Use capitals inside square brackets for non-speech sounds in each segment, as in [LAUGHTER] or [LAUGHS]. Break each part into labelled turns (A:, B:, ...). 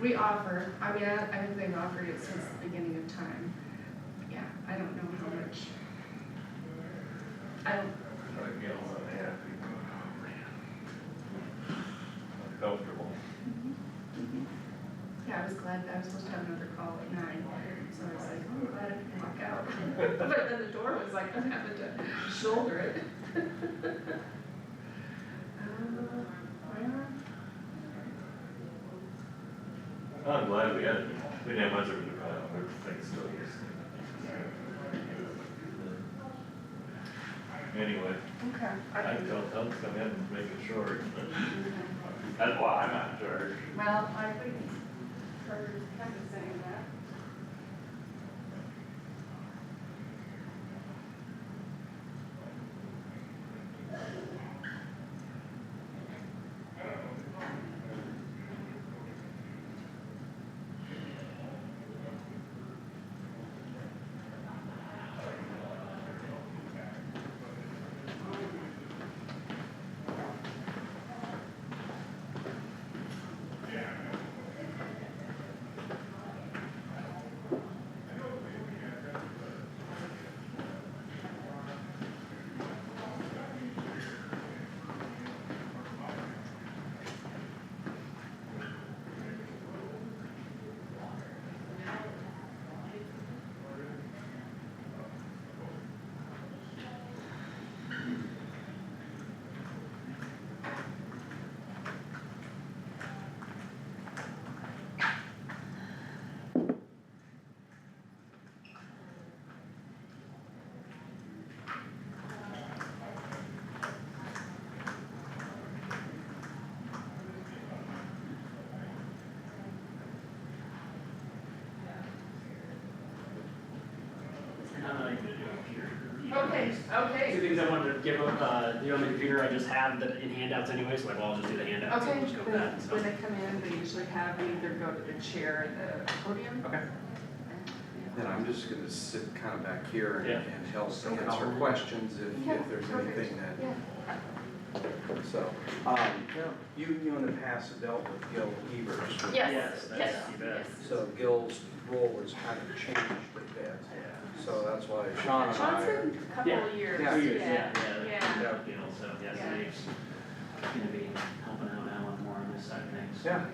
A: We offer, I mean, I, I think they've offered it since the beginning of time. Yeah, I don't know how much. I don't,
B: But again, I'm happy. Comfortable.
A: yeah, I was glad that I was supposed to have another call at nine, so I was like, oh, I'm glad I can walk out. [LAUGHS] But then the door was like, I'm having to shoulder it. [LAUGHS] Uh, well,
B: Oh, I'm glad we had, it. we didn't have much of a problem, everything's still here. Anyway,
A: Okay. I
B: I
A: can-
B: tell them to come in and make it short. That's why I'm not charged.
A: Well, I wouldn't, Carter's kind of saying that.
C: I'm not even gonna do it here.
A: Okay, okay.
C: Two things I wanted to give up, uh, the only computer I just have that in handouts anyway, so like, well, I'll just do the handouts,
D: Okay,
C: and just go with that,
D: when,
C: so.
D: when they come in, they usually have me either go to the chair or the podium.
C: Okay,
E: Then I'm just gonna sit kind of back here and,
C: Yeah.
E: and help
C: So we can
E: answer
C: all-
E: questions if,
D: Yeah,
E: if there's
D: perfect.
E: anything that,
D: Yeah.
E: so. Um, you, you in the past have dealt with Gil Evers.
C: Yes,
A: Yes, yes,
C: that's-
A: yes.
E: So Gil's role has kind of changed a bit,
C: yeah.
E: so that's why Sean and
A: Sean's
E: I,
A: been a couple
C: Yeah.
A: of years.
E: Yeah.
C: Two years, yeah,
A: Yeah.
C: yeah. You know, so, yeah, so
A: Yeah.
C: Dave's gonna be helping out now with more on this side of things.
E: yeah,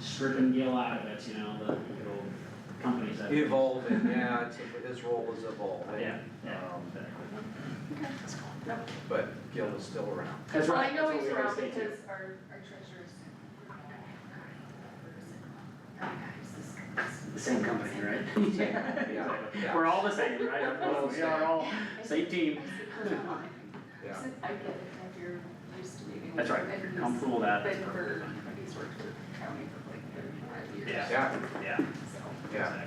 C: Stripping Gil out of it, you know, the good old companies that.
E: evolving, yeah, it's, his role is evolving.
C: Yeah, yeah.
E: Um,
C: exactly.
E: But Gil is still
C: [LAUGHS]
E: around.
C: That's
A: Well,
C: right,
A: I know
C: that's what
A: he's
C: we always
A: around
C: say too.
A: because our, our treasurer's.
C: The same company, right? [LAUGHS] Exactly.
E: Yeah.
C: We're all the same,
A: [LAUGHS]
C: right?
E: We're all the
C: We are all, same team.
E: Yeah.
A: I get it, if you're used to meeting.
C: That's right,
A: with
C: if
A: him,
C: you're comfortable with that.
A: But
C: that's
A: for,
C: perfectly fine.
A: he's worked with the county for like thirty-five years.
C: Yeah.
E: Yeah,
C: Yeah,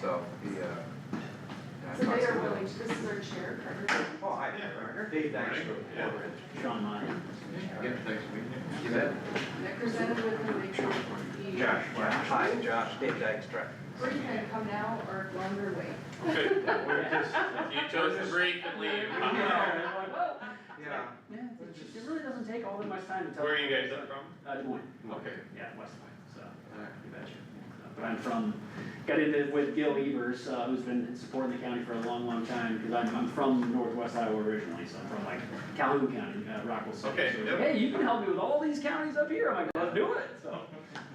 A: So,
E: yeah,
C: exactly.
E: so the, uh. yeah, I
A: so
E: talked
A: they
E: to
A: are
E: Gil.
A: willing, to- this is our chair, Carter.
E: Oh, hi, Dave, thanks for ordering.
C: Sean Meyer.
E: Yeah, thanks, You bet.
A: They're presented with them, they try to be.
E: Hi, Josh, Dave Dykstra.
A: Where you gonna come now or wander away?
B: Okay, we're just, you chose to break and leave.
E: Yeah.
C: Yeah, it really doesn't take all that much time to
B: [LAUGHS]
C: tell.
B: Where are you guys up from?
C: Uh, Des Moines,
B: Okay.
C: yeah, West Des Moines, so, you betcha. So, But I'm from, got into it with Gil Evers, uh, who's been supporting the county for a long, long time, because I'm, I'm from northwest Iowa originally, so I'm from like Calhoun County, uh, Rockwell City.
B: Okay,
C: So he's
B: yep.
C: like, Hey, you can help me with all these counties up here, I'm like, let's do it, so.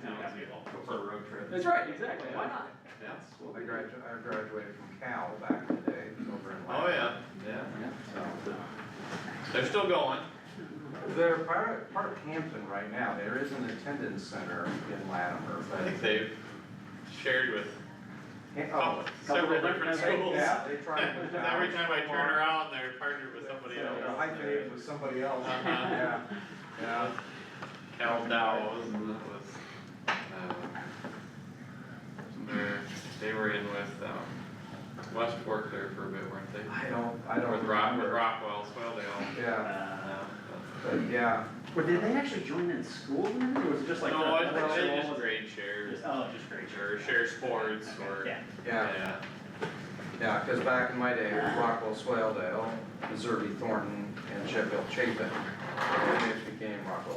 C: you know, got me involved.
B: Go for a road trip.
C: That's right, exactly, why not?
B: Yeah.
C: We'll
E: I
C: be great.
E: graduated, I graduated from Cal back in the day, over in.
B: Oh, yeah, yeah.
C: Yeah, so, uh,
B: They're still going.
E: yeah. They're part of, part of Hampton right now, there is an attendance center in Latimer,
B: I think
E: but.
B: they've shared with
E: Oh,
B: several different schools.
E: yeah, they try to.
B: [LAUGHS]
E: put
B: Every
E: down
B: time I turn
E: more-
B: around, they're partnered with somebody
E: Yeah,
B: else.
E: they're high paid with somebody else,
B: Uh-huh.
E: yeah, yeah.
B: Cal Dow was, was, um, they're- they were in with, um, West Fork there for a bit, weren't they?
E: I don't, I don't.
B: With Rock, with
E: remember.
B: Rockwell as well, they all,
E: Yeah,
C: uh,
B: um,
E: but yeah,
C: Well, did they actually join in school then, or was it just like?
B: uh, no, I
C: the-
B: think they
C: the-
B: just grade shares,
C: Just- Oh, just great.
B: or share sports, or,
C: Yeah,
E: yeah.
B: yeah,
E: Yeah, because back in my day, it was Rockwell Swaledale, Missouri Thornton, and Sheffield Chapin, and then it became Rockwell